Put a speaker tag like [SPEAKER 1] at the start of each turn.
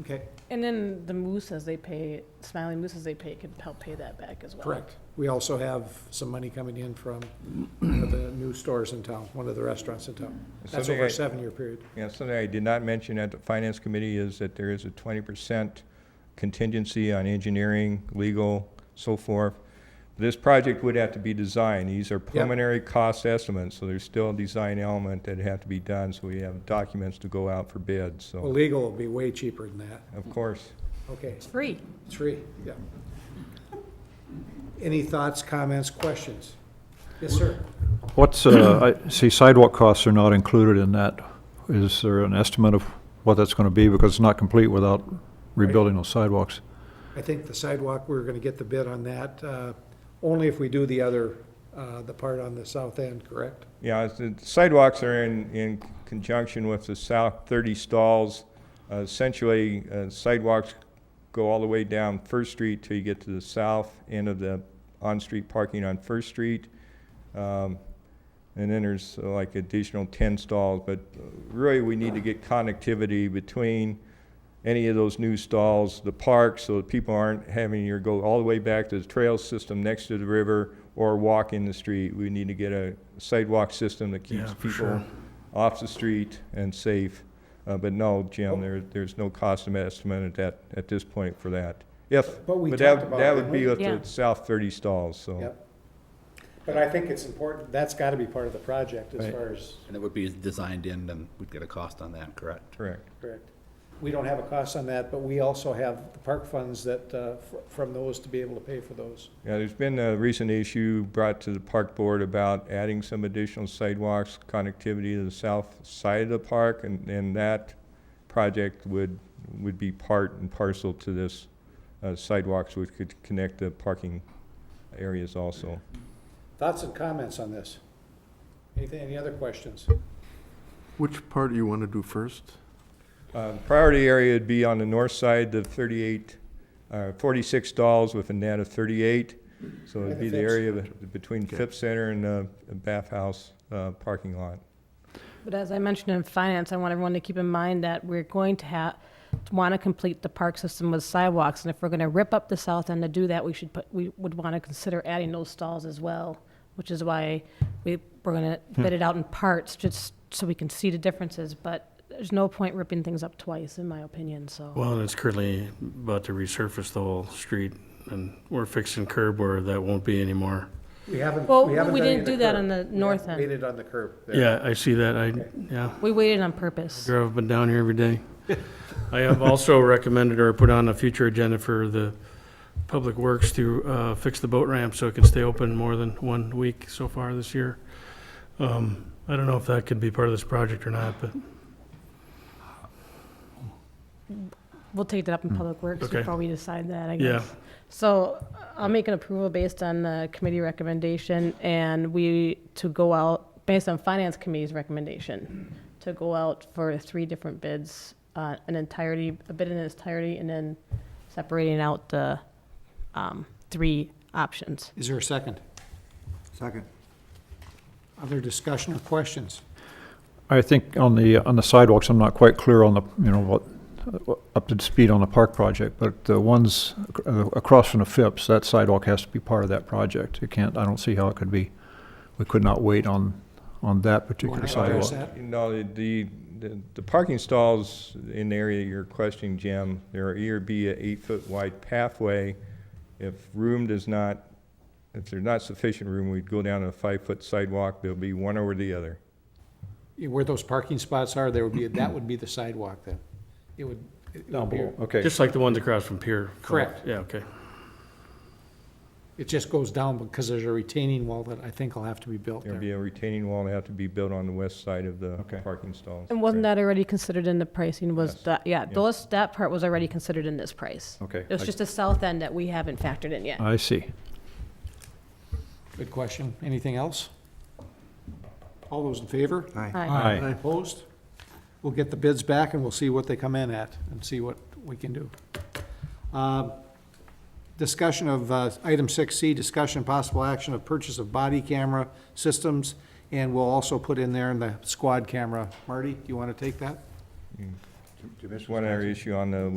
[SPEAKER 1] Okay,
[SPEAKER 2] And then the Moose, as they pay, Smiling Moose, as they pay, can help pay that back as well.
[SPEAKER 1] correct. We also have some money coming in from one of the new stores in town, one of the restaurants in town. That's
[SPEAKER 3] Something
[SPEAKER 1] over a
[SPEAKER 3] I-
[SPEAKER 1] seven-year period.
[SPEAKER 3] Yeah, something I did not mention at the Finance Committee is that there is a twenty percent contingency on engineering, legal, so forth. This project would have to be designed. These are preliminary cost estimates, so there's still a design element that have to be done, so we have documents to go out for bid,
[SPEAKER 1] Well,
[SPEAKER 3] so,
[SPEAKER 1] legal will be way cheaper than that.
[SPEAKER 3] of course.
[SPEAKER 1] Okay,
[SPEAKER 4] Free.
[SPEAKER 1] three, yeah. Any thoughts, comments, questions? Yes, sir.
[SPEAKER 5] What's, uh, I see sidewalk costs are not included in that. Is there an estimate of what that's going to be? Because it's not complete without rebuilding those sidewalks.
[SPEAKER 1] I think the sidewalk, we're gonna get the bid on that, uh, only if we do the other, uh, the part on the south end, correct?
[SPEAKER 3] Yeah, it's- the sidewalks are in, in conjunction with the south 30 stalls. Uh, Essentially, uh, sidewalks go all the way down First Street till you get to the south end of the on-street parking on First Street. Um, And then there's uh, like additional 10 stalls, but uh, really, we need to get connectivity between any of those new stalls, the park, so that people aren't having to go all the way back to the trail system next to the river or walk in the street. We need to get a sidewalk system that keeps
[SPEAKER 5] Yeah, for
[SPEAKER 3] people
[SPEAKER 5] sure.
[SPEAKER 3] off the street and safe. Uh, But no,
[SPEAKER 1] Oh.
[SPEAKER 3] Jim, there, there's no cost estimate at that, at this point for that. If,
[SPEAKER 1] But we
[SPEAKER 3] but that,
[SPEAKER 1] talked about it,
[SPEAKER 3] that would
[SPEAKER 1] didn't
[SPEAKER 3] be
[SPEAKER 1] we?
[SPEAKER 3] with the
[SPEAKER 4] Yeah.
[SPEAKER 3] south 30 stalls, so.
[SPEAKER 1] Yep. But I think it's important, that's gotta be part of the project as
[SPEAKER 3] Right.
[SPEAKER 1] far as,
[SPEAKER 6] And it would be designed in, and we'd get a cost on that, correct?
[SPEAKER 3] Correct.
[SPEAKER 1] correct. We don't have a cost on that, but we also have the park funds that, uh, fr- from those to be able to pay for those.
[SPEAKER 3] Yeah, there's been a recent issue brought to the park board about adding some additional sidewalks, connectivity to the south side of the park, and, and that project would, would be part and parcel to this uh, sidewalks, which could connect the parking areas also.
[SPEAKER 1] Thoughts and comments on this? Anything, any other questions?
[SPEAKER 7] Which part do you want to do first?
[SPEAKER 3] Uh, Priority area would be on the north side, the 38, uh, 46 stalls with a net of 38. So it'd be the
[SPEAKER 1] Phipps.
[SPEAKER 3] area be- between
[SPEAKER 7] Okay.
[SPEAKER 3] Phipps Center and uh, the Bath House uh, parking lot.
[SPEAKER 2] But as I mentioned in finance, I want everyone to keep in mind that we're going to have, want to complete the park system with sidewalks. And if we're going to rip up the south end to do that, we should put, we would want to consider adding those stalls as well, which is why we, we're going to bid it out in parts, just so we can see the differences. But there's no point ripping things up twice, in my opinion, so.
[SPEAKER 8] Well, and it's currently about to resurface the whole street, and we're fixing curb where that won't be anymore.
[SPEAKER 1] We haven't,
[SPEAKER 2] Well,
[SPEAKER 1] we haven't
[SPEAKER 2] we
[SPEAKER 1] done any
[SPEAKER 2] didn't
[SPEAKER 1] of the
[SPEAKER 2] do that
[SPEAKER 1] curb.
[SPEAKER 2] on the
[SPEAKER 1] We
[SPEAKER 2] north
[SPEAKER 1] haven't
[SPEAKER 2] end.
[SPEAKER 1] Made it on the curb there.
[SPEAKER 8] Yeah, I see that, I, yeah,
[SPEAKER 2] We waited on purpose.
[SPEAKER 8] sure, I've been down here every day. I have also recommended or put on a future agenda for the Public Works to uh, fix the boat ramp so it can stay open more than one week so far this year. Um, I don't know if that could be part of this project or not, but
[SPEAKER 2] We'll take that up in Public Works
[SPEAKER 8] Okay.
[SPEAKER 2] before we decide that, I
[SPEAKER 8] Yeah.
[SPEAKER 2] guess. So uh, I'll make an approval based on the committee recommendation and we, to go out, based on Finance Committee's recommendation, to go out for three different bids, uh, an entirety, a bid in its entirety, and then separating out the, um, three options.
[SPEAKER 1] Is there a second?
[SPEAKER 7] Second.
[SPEAKER 1] Other discussion or questions?
[SPEAKER 5] I think on the, on the sidewalks, I'm not quite clear on the, you know, what, what- up to speed on the park project, but the ones ac- uh, across from the Phipps, that sidewalk has to be part of that project. It can't, I don't see how it could be, we could not wait on, on that particular
[SPEAKER 1] Wanna
[SPEAKER 5] sidewalk.
[SPEAKER 1] address that?
[SPEAKER 3] You know, the, the, the parking stalls in the area you're questioning, Jim, there are either be an eight-foot wide pathway. If room does not, if there's not sufficient room, we'd go down a five-foot sidewalk, there'll be one over the other.
[SPEAKER 1] Where those parking spots are, there would be, that would be the sidewalk then. It would. it would
[SPEAKER 5] Down
[SPEAKER 1] be-
[SPEAKER 5] below, okay.
[SPEAKER 8] just like the ones across from Pier.
[SPEAKER 1] Correct.
[SPEAKER 8] Yeah, okay.
[SPEAKER 1] It just goes down because there's a retaining wall that I think will have to be built
[SPEAKER 3] There'll
[SPEAKER 1] there.
[SPEAKER 3] be a retaining wall that have to be built on the west side of the
[SPEAKER 5] Okay.
[SPEAKER 3] parking stalls.
[SPEAKER 2] And wasn't
[SPEAKER 3] Correct.
[SPEAKER 2] that already considered in the pricing? Was
[SPEAKER 3] Yes.
[SPEAKER 2] that, yeah,
[SPEAKER 3] Yeah.
[SPEAKER 2] those, that part was already considered in this price.
[SPEAKER 5] Okay. Uh,
[SPEAKER 2] It was just the south end that we haven't factored in yet.
[SPEAKER 5] I see.
[SPEAKER 1] Good question. Anything else? All those in favor?
[SPEAKER 2] Aye.
[SPEAKER 5] Aye.
[SPEAKER 1] Opposed? We'll get the bids back and we'll see what they come in at and see what we can do. Um, Discussion of, uh, item six C, discussion and possible action of purchase of body camera systems. And we'll also put in there in the squad camera. Marty, do you want to take that?
[SPEAKER 3] There's one other issue on the